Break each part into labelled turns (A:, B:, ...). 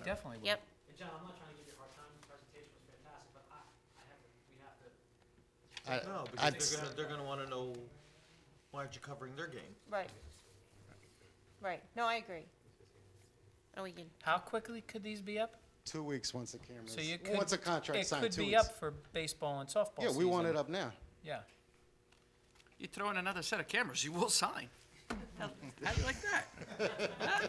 A: definitely will.
B: Yep.
C: And John, I'm not trying to give you a hard time, the presentation was fantastic, but I, I have, to- we have to,
D: I-
E: No,
D: I'd
E: because they're gonna, they're gonna wanna know, why aren't you covering their game?
B: Right. Right, no, I agree. And we can,
A: How quickly could these be up?
D: Two weeks once the cameras,
A: So you could.
D: once a contract's signed,
A: It
D: two
A: could be
D: weeks.
A: up for baseball and softball
D: Yeah, we want
A: season.
D: it up now.
A: Yeah.
F: You throw in another set of cameras, you will sign. How do you like that?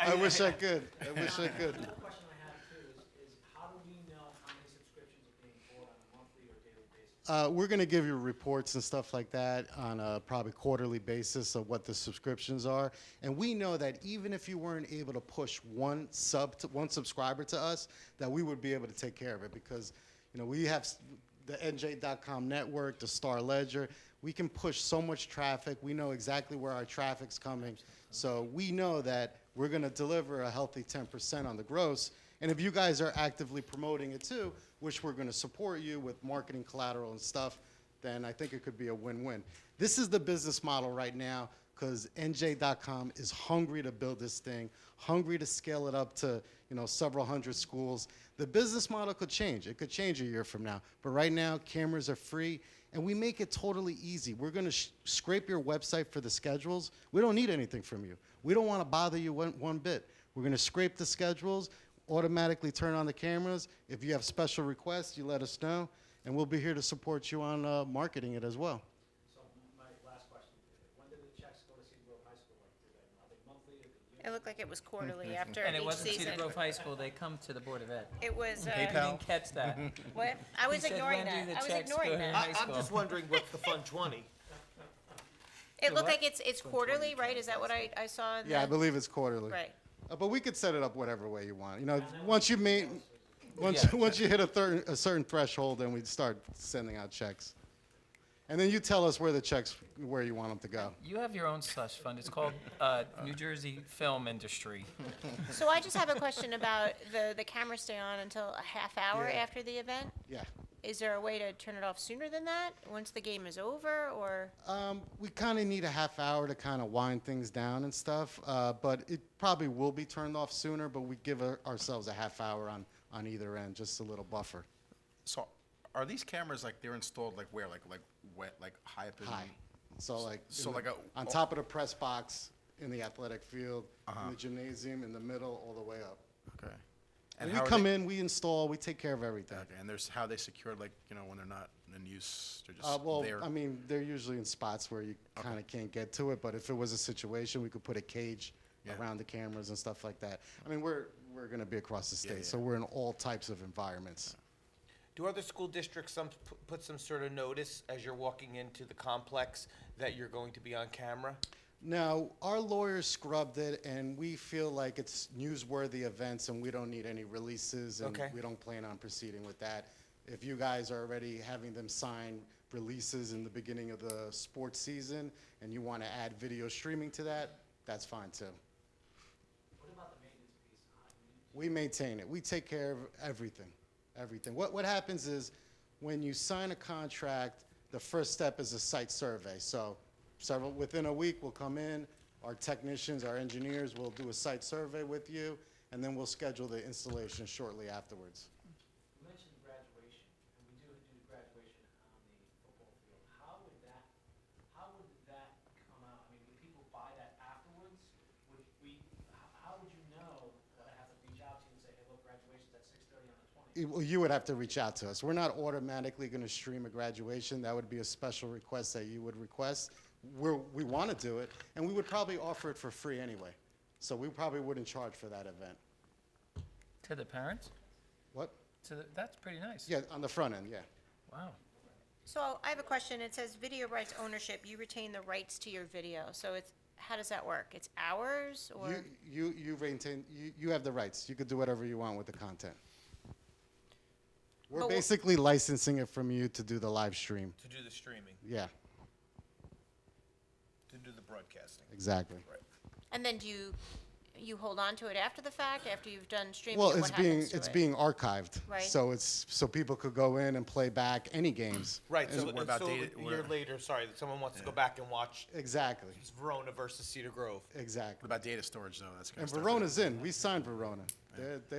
D: I wish I could, I wish I could.
C: the question I have too is, is how do we know how many subscriptions are being bought on a monthly or daily basis?
D: Uh, we're going to give you reports and stuff like that on a probably quarterly basis of what the subscriptions are. And we know that even if you weren't able to push one sub to, one subscriber to us, that we would be able to take care of it because, you know, we have s- the NJ.com network, the Star Ledger. We can push so much traffic. We know exactly where our traffic's coming. So we know that we're going to deliver a healthy 10% on the gross. And if you guys are actively promoting it too, which we're going to support you with marketing collateral and stuff, then I think it could be a win-win. This is the business model right now because NJ.com is hungry to build this thing, hungry to scale it up to you know several hundred schools. The business model could change. It could change a year from now. But right now, cameras are free, and we make it totally easy. We're going to sh- scrape your website for the schedules. We don't need anything from you. We don't want to bother you one, one bit. We're going to scrape the schedules automatically turn on the cameras. If you have special requests, you let us know, and we'll be here to support you on uh, marketing it as well.
C: So m- my last question, when did the checks go to Cedar Grove High School, like, do they, are they monthly, or do you?
B: it looked like it was quarterly
D: Mm-hmm.
B: after
A: And it
B: each
A: wasn't Cedar
B: season.
A: Grove High School, they come to the Board of Ed.
B: It was, uh,
A: You didn't catch that.
B: what? I was
A: said, "When
B: ignoring that,
A: do the
B: I was
A: checks go
B: ignoring
A: in?"
B: that.
A: high
E: I, I'm just
A: school.
E: wondering what the fun twenty,
B: It looked
A: what?
B: like it's, it's quarterly, right? Is that what I, I saw in the?
D: Yeah, I believe it's quarterly.
B: Right.
D: Uh, but we could set it up whatever way you want. You know, once you meet, once
A: Yeah.
D: once you hit a, thir- a certain threshold, then we start sending out checks, and then you tell us where the checks where you want them to go.
A: You have your own slush fund. It's called uh, New Jersey Film Industry.
B: So I just have a question about the, the cameras stay on until a half hour
D: Yeah.
B: after the event?
D: Yeah.
B: Is there a way to turn it off sooner than that, once the game is over, or?
D: Um, we kind of need a half hour to kind of wind things down and stuff, uh, but it probably will be turned off sooner. But we give our- ourselves a half hour on on either end, just a little buffer.
G: So are these cameras like they're installed like where like like wet like high up in
D: high. So like in
G: so
D: the-
G: like a-
D: on top of the press box in the athletic field,
G: Uh-huh.
D: in the gymnasium, in the middle, all the way up.
G: Okay.
D: And
G: And
D: we
G: how are
D: come
G: they,
D: in, we install, we take care of everything.
G: Okay, and there's how they secured like you know when they're not in use they're just
D: Uh, well,
G: there.
D: I mean, they're usually in spots where you kind of can't get to it. But if it was a situation, we could put a cage
G: Yeah.
D: around the cameras and stuff like that. I mean, we're we're going to be across the state,
G: Yeah, yeah,
D: so we're in all types of environments.
H: Do other school districts some, p- put some sort of notice as you're walking into the complex that you're going to be on camera?
D: No, our lawyers scrubbed it, and we feel like it's newsworthy events, and we don't need any releases, and
H: Okay.
D: we don't plan on proceeding with that. If you guys are already having them sign releases in the beginning of the sports season, and you want to add video streaming to that, that's fine too.
C: What about the maintenance piece? I mean,
D: We maintain it. We take care of everything, everything. What, what happens is when you sign a contract, the first step is a site survey. So several, within a week, we'll come in, our technicians, our engineers will do a site survey with you, and then we'll schedule the installation shortly afterwards.
C: You mentioned graduation, and we do do graduation on the football field. How would that, how would that come out? I mean, would people buy that afterwards? Would we, how, how would you know that I have to reach out to you and say, hey, look, graduation's at six thirty on the twentieth?
D: You- well, You would have to reach out to us. We're not automatically going to stream a graduation. That would be a special request that you would request. We're, we want to do it, and we would probably offer it for free anyway. So we probably wouldn't charge for that event.
A: To the parents?
D: What?
A: To the, that's pretty nice.
D: Yeah, on the front end, yeah.
A: Wow.
B: So I have a question. It says video rights ownership, you retain the rights to your video. So it's, how does that work? It's ours or?
D: You, you, you maintain, you, you have the rights. You could do whatever you want with the content. We're
B: But wha-
D: basically licensing it from you to do the live stream.
H: To do the streaming,
D: Yeah,
H: to do the broadcasting.
D: exactly.
B: And then do you, you hold on to it after the fact, after you've done streaming?
D: Well,
B: and
D: it's
B: what
D: being,
B: happens to
D: it's
B: it?
D: being archived.
B: Right.
D: So it's, so people could go in and play back any games.
H: Right,
D: And-
H: so,
G: what about
H: so
G: data-
H: a year
G: where-
H: later, sorry, that someone wants to go back and watch
D: Exactly,
H: Verona versus Cedar Grove.
D: exactly.
G: what about data storage though? That's
D: And
G: kind of
D: Verona's in. We signed Verona. They're, they